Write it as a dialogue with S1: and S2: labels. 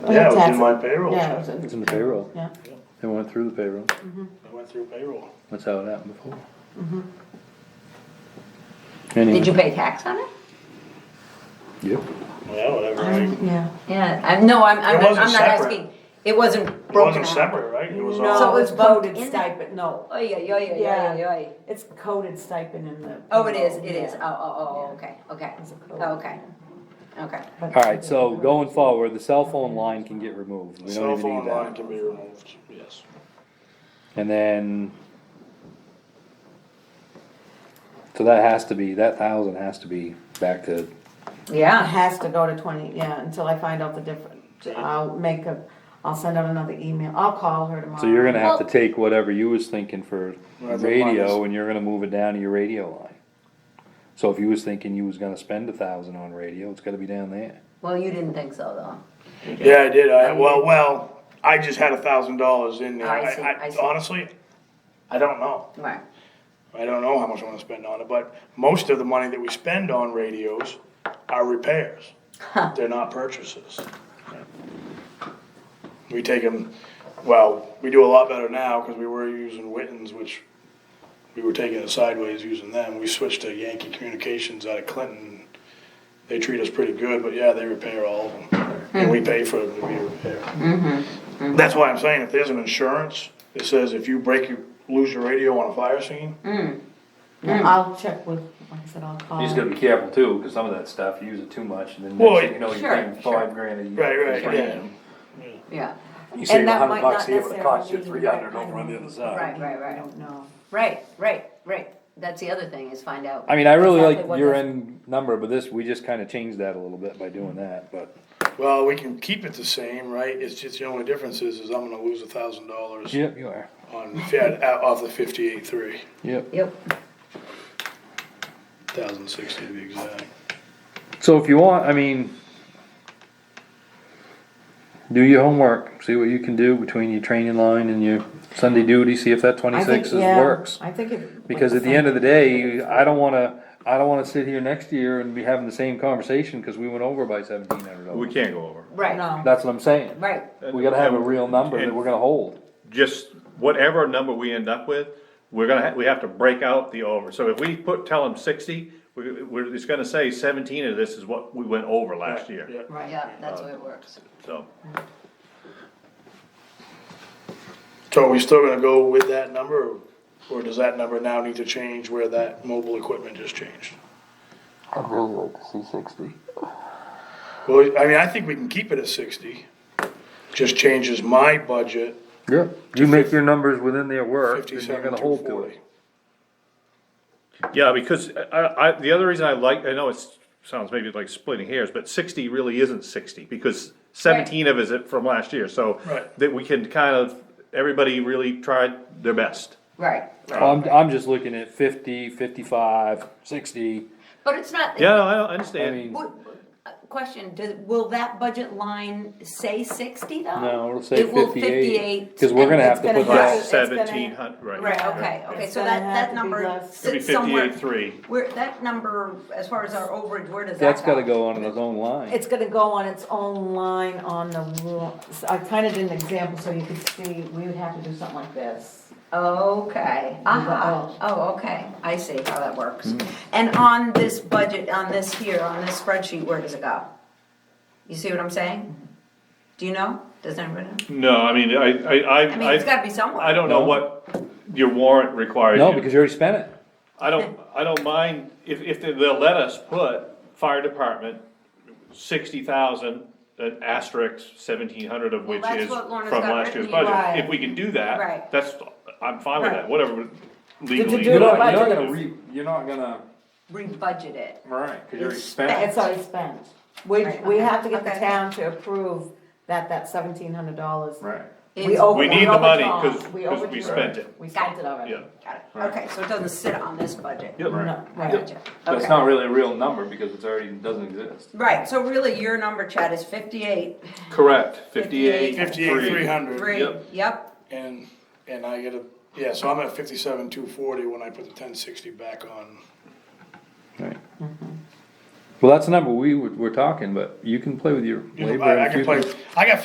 S1: Yeah, it was
S2: Tax-
S1: in my payroll
S2: Yeah, it was
S1: check.
S2: in.
S3: It's in the payroll.
S2: Yeah,
S3: They went through the payroll.
S1: I went through payroll.
S3: That's how it happened before.
S4: Mm-hmm. Did you
S3: Anyway,
S4: pay tax on it?
S3: yep.
S1: Yeah, whatever.
S4: Um,
S2: I
S1: I-
S2: don't- yeah.
S4: Yeah, I, no, I'm, I'm
S1: It
S4: not,
S1: wasn't
S4: I'm not
S1: separate.
S4: asking, it wasn't
S1: It
S4: broken
S1: wasn't
S4: out.
S1: separate, right? It was
S4: So
S3: uh,
S2: No,
S1: all,
S4: it
S2: it's
S4: was voted
S2: voted
S4: in there.
S2: stipend, no,
S4: Oh, yeah, yeah, yeah, yeah,
S2: Yeah.
S4: yeah, yeah.
S2: it's coded stipend in the.
S4: Oh, it is,
S2: payroll,
S4: it is, oh,
S2: yeah.
S4: oh, oh, okay, okay, Oh,
S2: It's a code.
S4: okay, okay.
S2: But-
S3: Alright, so going forward, the cell phone line can get removed. We
S1: cell
S3: don't even
S1: phone
S3: need
S1: line
S3: that.
S1: can be removed, yes.
S3: And then. So that has to be, that thousand has to be back to,
S2: It
S4: Yeah,
S2: has to go to twenty, yeah, until I find out the difference, I'll make a, I'll send out another email, I'll call her tomorrow.
S3: so you're gonna have to
S4: Well-
S3: take whatever you was thinking for
S1: Whatever
S3: radio
S1: minus-
S3: and you're gonna move it down to your radio line. So if you was thinking you was gonna spend a thousand on radio, it's gotta be down there.
S4: well, you didn't think so, though.
S1: Yeah, I did. I, well, well, I just had a thousand dollars in there.
S4: Um, I see, I see.
S1: Honestly, I don't know.
S4: Right,
S1: I don't know how much I wanna spend on it, but most of the money that we spend on radios are repairs. They're not purchases. We take them, well, we do a lot better now, cause we were using Wittens, which we were taking it sideways using them. We switched to Yankee Communications out of Clinton. They treat us pretty good, but yeah, they repair all of them, and we pay for them to be repaired. That's why I'm saying, if there's an insurance that says if you break your, lose your radio on a fire scene,
S2: Yeah, I'll check with, like I said, I'll call.
S5: You just gotta be careful too, because some of that stuff, you use it too much, and then
S1: Well,
S5: next thing you know,
S4: sure,
S5: you're paying
S4: sure.
S5: five grand a year.
S1: Right, right,
S5: for
S1: yeah.
S5: premium.
S4: yeah,
S5: You save
S2: that
S5: a
S2: might
S5: hundred bucks
S2: not
S5: here, but it costs you three
S2: necessarily be the
S5: hundred
S2: right
S5: over on the
S2: kind
S5: other
S2: of-
S3: Uh,
S5: side.
S4: Right, right, right.
S2: I don't know.
S4: right, right, right. That's the other thing, is find out.
S3: I mean, I really
S2: Exactly what
S3: like your
S2: is-
S3: end number, but this, we just kinda changed that a little bit by doing that, but.
S1: well, we can keep it the same, right? It's just, the only difference is, is I'm gonna lose a thousand dollars
S3: Yep, you are.
S1: on, yeah, out- off the fifty-eight, three,
S3: Yep.
S4: Yep,
S1: thousand sixty to be exact.
S3: So if you want, I mean, do your homework, see what you can do between your training line and your Sunday duty, see if that
S2: I think,
S3: twenty-six is,
S2: yeah,
S3: works.
S2: I think it.
S3: Because at the end of the day, I don't wanna, I don't wanna sit here next year and be having the same conversation, cause we went over by seventeen hundred
S6: We
S3: dollars.
S6: can't go over.
S4: right,
S2: No,
S3: That's what I'm saying.
S4: right,
S3: We gotta have a real number that we're gonna hold.
S6: Just whatever number we end up with, we're gonna, ha- we have to break out the over. So if we put, tell them sixty, we, we're, it's gonna say seventeen of this is what we went over last year,
S2: right.
S4: yeah, that's
S3: Uh,
S4: the way it works.
S6: so.
S1: So are we still gonna go with that number, or- or does that number now need to change where that mobile equipment just changed?
S3: I'd really like to see sixty.
S1: Well, I mean, I think we can keep it at sixty, just changes my budget
S3: Yeah, you make your numbers within their work, then you're
S1: fifty-seven
S3: gonna
S1: to
S3: hold to it.
S1: forty.
S6: Yeah, because I, I, the other reason I like, I know it's, sounds maybe like splitting hairs, but sixty really isn't sixty, because seventeen of it is from last year, so.
S1: Right.
S6: That we can kind of, everybody really tried their best.
S4: Right,
S3: I'm, I'm just looking at fifty, fifty-five, sixty,
S4: but it's not.
S6: Yeah, no, I I
S3: I
S6: understand.
S3: mean,
S4: What- uh, Question, does, will that budget line say sixty though?
S3: no, it'll say
S4: It will
S3: fifty-eight, cause we're
S4: and
S3: gonna have
S4: it's
S3: to
S2: gonna
S3: put
S2: have-
S3: that,
S2: it's
S6: Last
S2: gonna-
S6: seventeen hundred, right.
S4: Right, okay, okay, so
S2: gonna
S4: that,
S2: have to
S4: that
S2: be
S4: number
S2: less.
S6: It'll be
S4: sits somewhere.
S6: fifty-eight, three.
S4: Where, that number, as far as our overage, where does that go?
S3: that's gotta go on its own line.
S2: It's gonna go on its own line on the, ru- so I kinda did an example so you could see, we would have to do something like this.
S4: Okay,
S2: Uh-huh.
S4: aha, oh, okay, I see how that works.
S3: Mm-hmm.
S4: And on this budget, on this here, on this spreadsheet, where does it go? You see what I'm saying? Do you know? Does anybody know?
S6: No, I mean, I, I,
S4: I mean, it's
S6: I,
S4: gotta be somewhere.
S6: I don't know
S3: No.
S6: what your warrant requires.
S3: No,
S6: you-
S3: because you already spent it.
S6: I don't, I don't mind, if, if they- they'll let us put fire department, sixty thousand, an asterisk, seventeen hundred of
S4: Well,
S6: which
S4: that's
S6: is
S4: what Lorna's
S6: from
S4: got
S6: last year's
S4: written here.
S2: Right.
S6: budget. If we can do
S4: Right.
S6: that, that's, I'm fine with that, whatever legally.
S2: do You're not-
S6: I
S2: you're not
S6: can
S2: budget.
S6: do.
S3: you're not gonna,
S4: Re-budget it.
S3: right, cause
S4: already spent it.
S2: It's already spent. We,
S4: Right,
S2: we
S4: okay,
S2: have to get the
S4: okay.
S2: town to approve that, that seventeen hundred dollars.
S3: Right.
S2: We
S4: Is-
S2: over,
S6: We
S2: we
S6: need the money,
S2: overdrawn.
S6: 'cause- 'cause we
S2: overdrawn.
S6: spent it.
S2: We spent it already.
S6: Yeah.
S4: Got it. Okay, so it doesn't sit on this budget.
S5: Yep.
S2: No,
S4: I
S2: right.
S4: gotcha.
S5: But it's
S4: Okay.
S5: not really a real number because it's already, doesn't exist.
S4: Right, so really your number, Chad, is fifty-eight,
S6: Correct,
S4: 58,
S6: fifty-eight,
S1: Fifty-eight, three hundred,
S4: three,
S6: Yep.
S4: yep,
S1: and, and I get a, yeah, so I'm at fifty-seven, two forty when I put the ten sixty back on.
S3: Right.
S4: Mm-hmm.
S3: Well, that's the number we were, were talking, but you can play with your
S1: You know,
S3: labor.
S1: I I
S3: and
S1: can
S3: you
S1: play, I got